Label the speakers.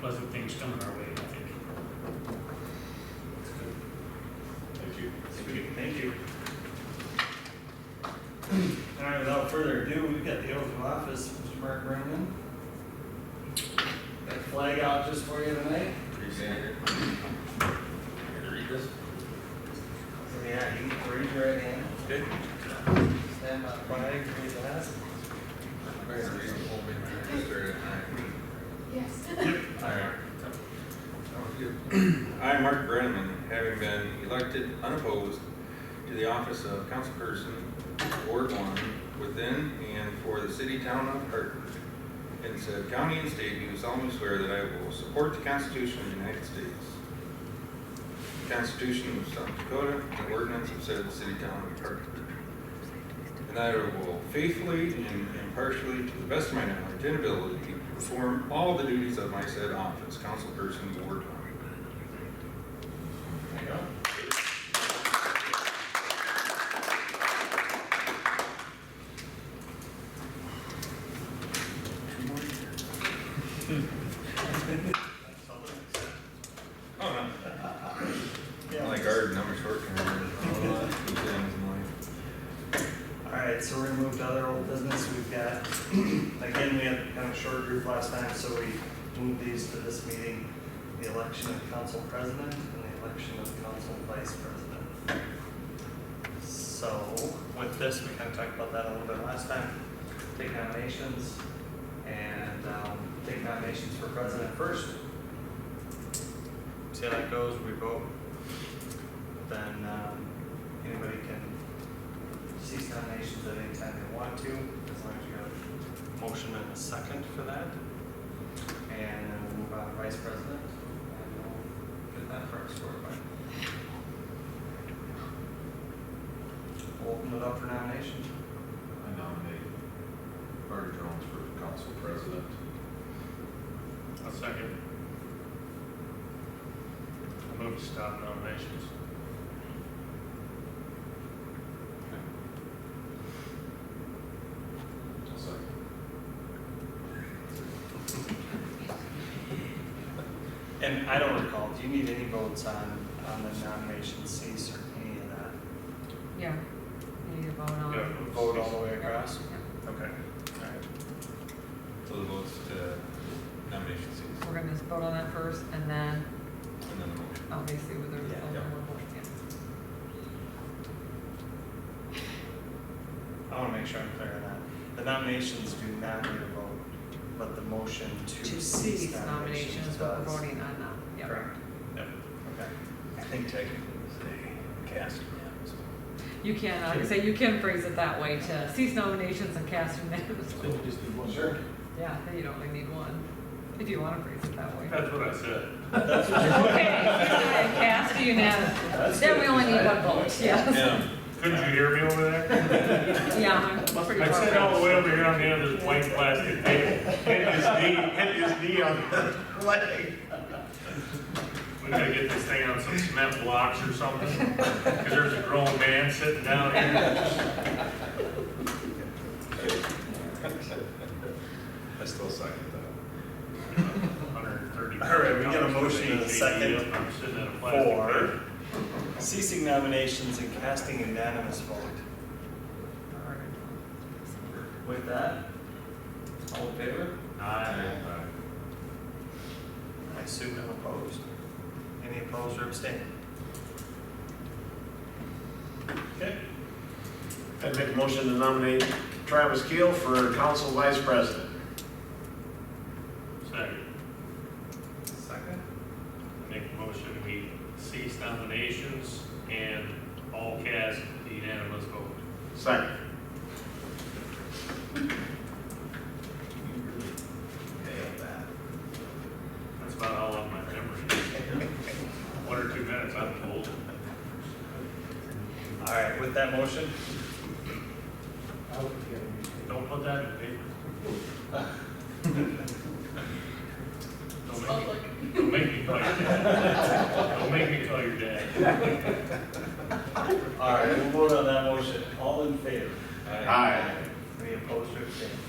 Speaker 1: pleasant things coming our way, I think. That's good.
Speaker 2: Thank you.
Speaker 1: Thank you. Thank you.
Speaker 3: All right, without further ado, we've got the oath of office, Mr. Mark Brennan. Got the flag out just for you tonight.
Speaker 2: Appreciate it. Here to read this?
Speaker 3: So, Yeah, you can raise your right hand,
Speaker 2: Good.
Speaker 3: stand by the flag, raise the hand.
Speaker 4: Yes.
Speaker 2: I, Mark Brenneman, having been elected unopposed to the office of councilperson, Ward One, within and for the city town of Hartford, in said county and state, do solemnly swear that I will support the Constitution of the United States, the Constitution of South Dakota, and the ordinance of said city town of Hartford, and that I will faithfully and impartially, to the best of my knowledge and ability, perform all the duties of my said office, councilperson, Ward One.
Speaker 3: There you go.
Speaker 2: Oh, no.
Speaker 3: Yeah.
Speaker 2: My garden, I'm a short term.
Speaker 3: All right, so we're gonna move to other old business. We've got, again, we had kind of a short group last time, so we moved these to this meeting. The election of council president and the election of council vice president. So with this, we kind of talked about that a little bit last time. Take nominations and um, take nominations for president first. See how that goes, we vote. Then um, anybody can cease nominations at any time they want to, as long as you have a motion and a second for that. And then we'll move on to vice president, and we'll get that first scored by. Open it up for nominations.
Speaker 5: I nominate Marty Jones for council president.
Speaker 1: I'll second. I move to stop nominations.
Speaker 5: I'll second.
Speaker 3: And I don't recall, do you need any votes on, on the nomination cease or any of that?
Speaker 4: Yeah, we need to vote on.
Speaker 1: Yeah.
Speaker 3: Vote all the way
Speaker 4: Yeah.
Speaker 3: across?
Speaker 4: Yeah.
Speaker 3: Okay, all right.
Speaker 2: So the votes to nomination cease,
Speaker 4: We're gonna just vote on that first and then
Speaker 2: and then the motion.
Speaker 4: obviously with the
Speaker 3: Yeah.
Speaker 4: result,
Speaker 2: Yeah.
Speaker 4: we'll vote again.
Speaker 3: I want to make sure I'm clear on that. The nominations do not need a vote, but the motion to
Speaker 4: To
Speaker 3: cease
Speaker 4: cease
Speaker 3: nominations
Speaker 4: nominations,
Speaker 3: does.
Speaker 4: is what we're voting on now. Yeah.
Speaker 3: Correct. Yep. Okay.
Speaker 2: I think technically it's a cast unanimous.
Speaker 4: You can, I say you can phrase it that way to cease nominations and cast unanimously.
Speaker 5: just do one.
Speaker 3: Sure.
Speaker 4: Yeah, then you don't really need one, if you wanna phrase it that way.
Speaker 1: That's what I said.
Speaker 3: That's what
Speaker 4: Okay, and cast unanimously. Then we only need one vote, yes.
Speaker 2: Yeah,
Speaker 1: Couldn't you hear me over there?
Speaker 4: Yeah, I'm pretty
Speaker 1: I
Speaker 4: far
Speaker 1: sat all
Speaker 4: away.
Speaker 1: the way over here on the end of this white plastic table, hit his knee, hit his knee on the
Speaker 3: you- like,
Speaker 1: We gotta get this thing on some cement blocks or something, because there's a grown man sitting down here.
Speaker 5: I still second that.
Speaker 3: All right, we got a motion and a second.
Speaker 1: I'm sitting at a plastic table.
Speaker 3: Four. Ceasing nominations and casting unanimous vote. With that, all in favor?
Speaker 1: Aye.
Speaker 3: I assume no opposed. Any opposed or abstaining? Okay.
Speaker 6: I'd make a motion to nominate Travis Keel for council vice president.
Speaker 1: Second,
Speaker 3: Second.
Speaker 1: I make a motion, we cease nominations and all cast unanimous vote.
Speaker 6: Second.
Speaker 1: That's about all of my memory. One or two minutes, I'm told.
Speaker 3: All right, with that motion,
Speaker 1: Don't put that in the paper. Don't make me, don't make me call your dad. Don't make me call your dad.
Speaker 3: all right, we'll vote on that motion. All in favor?
Speaker 2: Aye.
Speaker 6: Aye.
Speaker 3: Any opposed or abstaining?